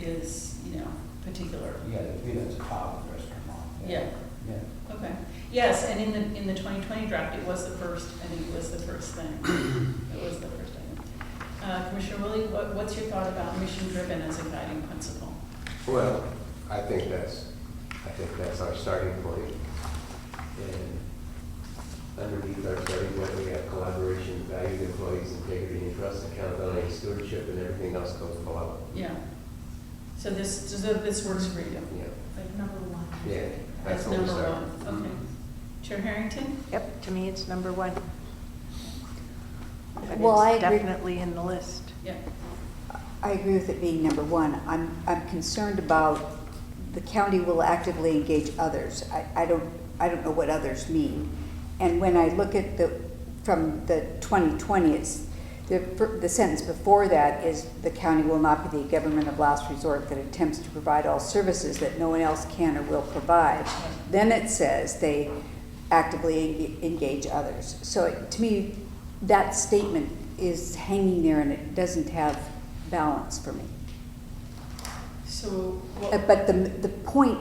is, you know, particular. Yeah, the Vita's a top restaurant. Yeah, Yeah. okay. Yes, and in the, in the twenty twenty draft, it was the first, I think it was the first thing. It was the first thing. Uh, Commissioner Willie, what, what's your thought about mission-driven as a guiding principle? Well, I think that's, I think that's our starting point. And underneath our starting point, we have collaboration, valued employees, integrity and trust, accountability, and stewardship, and everything else goes below. Yeah. So this, so this works for you? Yeah, Like number one. yeah, that's That's what we Mm-hmm. number start. one, okay. Chair Harrington? Yep, to me, it's number one. But Well, I it's agree. Definitely in the list. Yeah, I agree with it being number one. I'm, I'm concerned about the county will actively engage others. I, I don't, I don't know what others mean. And when I look at the, from the 2020, it's, the, fir- the sentence before that is, "The county will not be the government of last resort that attempts to provide all services that no one else can or will provide." Then it says they actively en- engage others. So it- to me, that statement is hanging there and it doesn't have balance for me. so Uh, what? But the, the point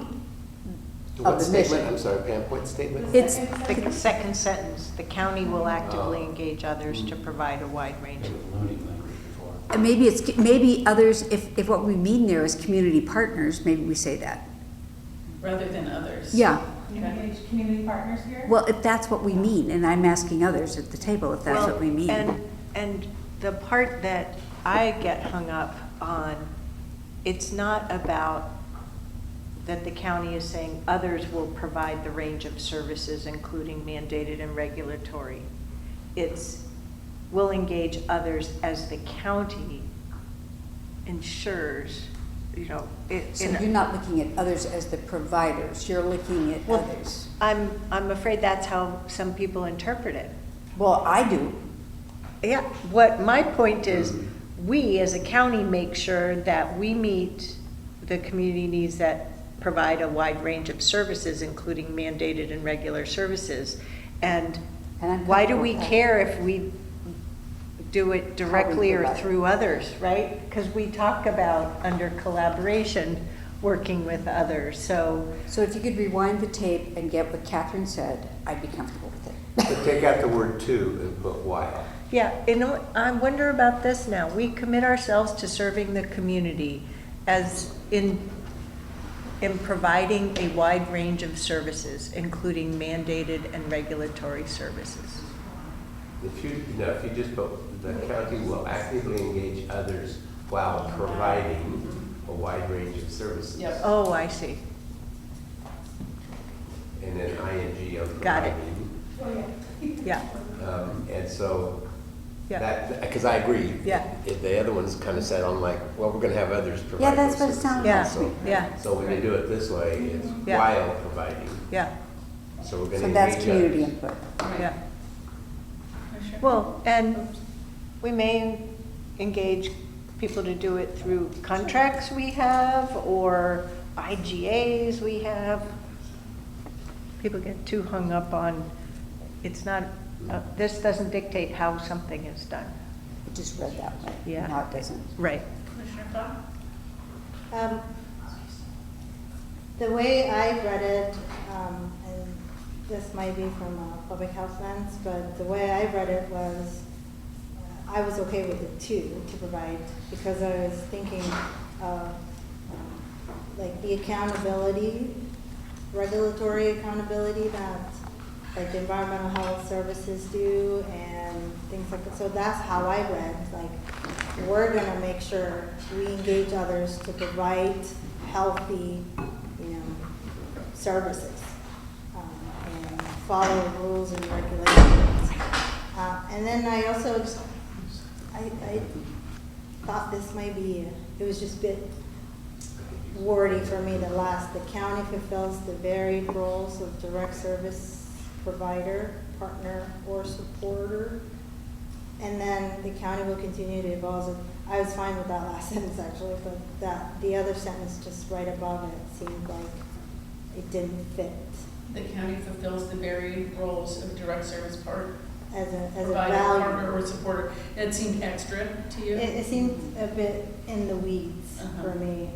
What of the statement, I'm mission. sorry, Pam, what statement? It's, The second sentence, the county will actively engage others to provide a wide range They of were loading language before. and uh, maybe it's, maybe others, if, if what we mean there is community partners, maybe we say that. rather than others? Yeah, You engage community partners here? well, if that's what we mean, and I'm asking others at the table if that's what we mean. Well, And, and the part that I get hung up on, it's not about that the county is saying others will provide the range of services, including mandated and regulatory. It's will engage others as the county ensures, you know, it. So in- you're not looking at others as the providers, you're looking at Well, others. I'm, I'm afraid that's how some people interpret it. Well, I do. Yeah, what my point is, we as a county make sure that we meet the community needs that provide a wide range of services, including mandated and regular services. And And I'm why do comfortable we with that. care if we do it directly or provide it. through others, right? Because we talk about under collaboration, working with others, so. So if you could rewind the tape and get what Catherine said, I'd be comfortable with it. But take out the word "to" and put "while." Yeah, and I wonder about this now. We commit ourselves to serving the community as in, in providing a wide range of services, including mandated and regulatory services. If you, no, if you just put, the county will actively engage others while providing a wide range of services. Yep. Oh, I see. And then ing on providing. Got it. Yeah, Um, And so, yeah. that, because I agree. Yeah. If The other ones kind of said on like, well, we're going to have others provide. Yeah, that's those what it services. sounded Yeah, like. yeah, So when you do it this way, it's Yeah. while providing, yeah, so we're going to So engage that's community others. input. Right. yeah. Commissioner? Well, and we may engage people to do it through contracts we have or IGAs we have. People get too hung up on, it's not, uh, this doesn't dictate how something is done. It Just read that way. Yeah. Now it doesn't. Right. Commissioner Clapp? Um, The way I read it, um, and this might be from a public health lens, but the way I read it was, uh, I was okay with the two to provide, because I was thinking of, um, like, the accountability, regulatory accountability that, like, environmental health services do and things like that. So that's how I read, like, we're gonna make sure we engage others to provide healthy, you know, services um, and follow rules and regulations. Uh, And then I also, just- I, I thought this might be, it was just a bit wordy for me, the last, the county fulfills the varied roles of direct service provider, partner, or supporter. And then the county will continue to evolve, as- I was fine with that last sentence actually, but that, the other sentence just right above it seemed like it didn't fit The county fulfills the varied roles of direct service part, as a, as a provider, partner, value. or supporter. That seemed extra to you? It, it seemed a bit in the weeds Uh-huh. for me.